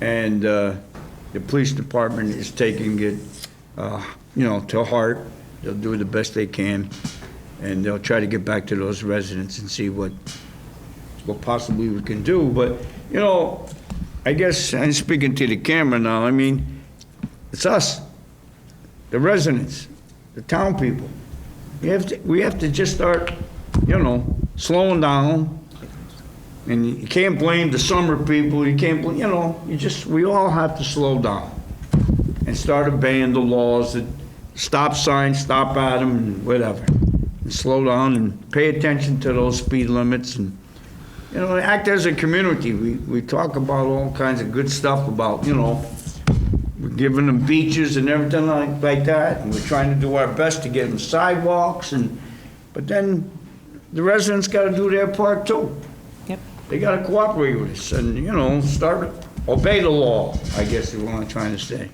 and uh, the police department is taking it, uh, you know, to heart. They'll do the best they can, and they'll try to get back to those residents and see what, what possibly we can do. But, you know, I guess, I'm speaking to the camera now, I mean, it's us, the residents, the town people. We have to, we have to just start, you know, slowing down. And you can't blame the summer people, you can't blame, you know, you just, we all have to slow down and start obeying the laws that stop signs, stop at them, and whatever. And slow down and pay attention to those speed limits and, you know, act as a community. We, we talk about all kinds of good stuff about, you know, we're giving them beaches and everything like, like that, and we're trying to do our best to get them sidewalks and, but then the residents gotta do their part too. Yep. They gotta cooperate with us and, you know, start, obey the law, I guess is what I'm trying to say.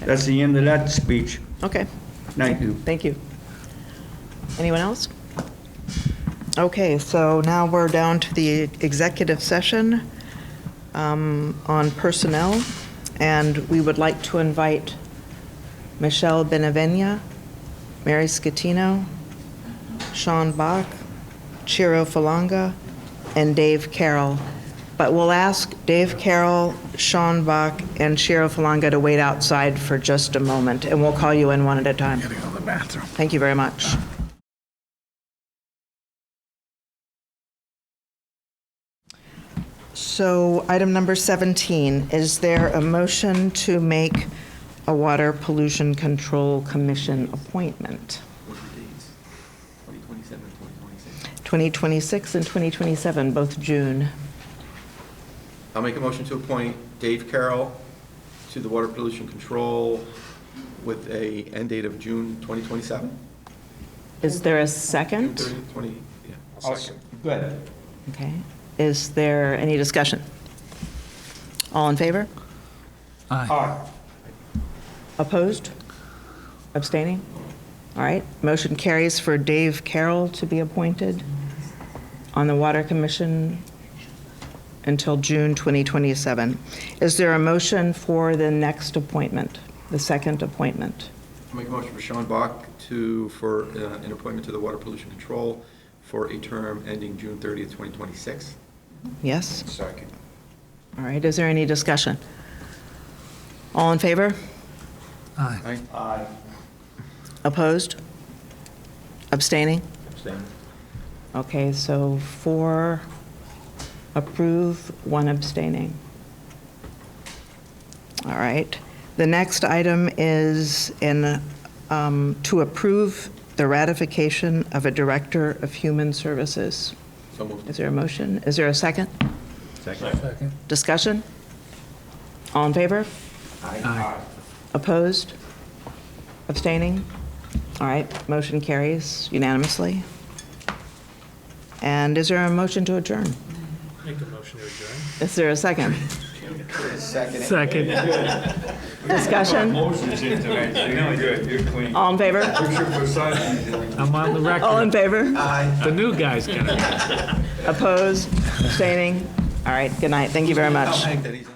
That's the end of that speech. Okay, Thank you. thank you. Anyone else? Okay, so now we're down to the executive session um, on personnel, and we would like to invite Michelle Benevenia, Mary Scatino, Sean Bach, Chiro Falanga, and Dave Carroll. But we'll ask Dave Carroll, Sean Bach, and Chiro Falanga to wait outside for just a moment, and we'll call you in one at a time. Thank you very much. So item number 17, is there a motion to make a Water Pollution Control Commission appointment? What are the dates? 2027, 2026. 2026 and 2027, both June. I'll make a motion to appoint Dave Carroll to the Water Pollution Control with a end date of June 2027? Is there a June second? 30, 20, yeah. Good. Okay. Is there any discussion? All in favor? Aye. Opposed? Abstaining? All right, motion carries for Dave Carroll to be appointed on the Water Commission until June 2027. Is there a motion for the next appointment, the second appointment? I'll make a motion for Sean Bach to, for uh, an appointment to the Water Pollution Control for a term ending June 30th, 2026. Yes? Second. All right, is there any discussion? All in favor? Aye. Aye. Opposed? Abstaining? Okay, so four approve, one abstaining. All right. The next item is in, um, to approve the ratification of a Director of Human Services. So moved. Is there a motion? Is there a second? Second. Discussion? All in favor? Aye. Opposed? Abstaining? All right, motion carries unanimously. And is there a motion to adjourn? Make a motion to adjourn. Is there a second? Second. Discussion? All in favor? I'm on All the record. in favor? The new guy's gonna. Opposed? Abstaining? All right, good night. Thank you very much. I'll make that easy.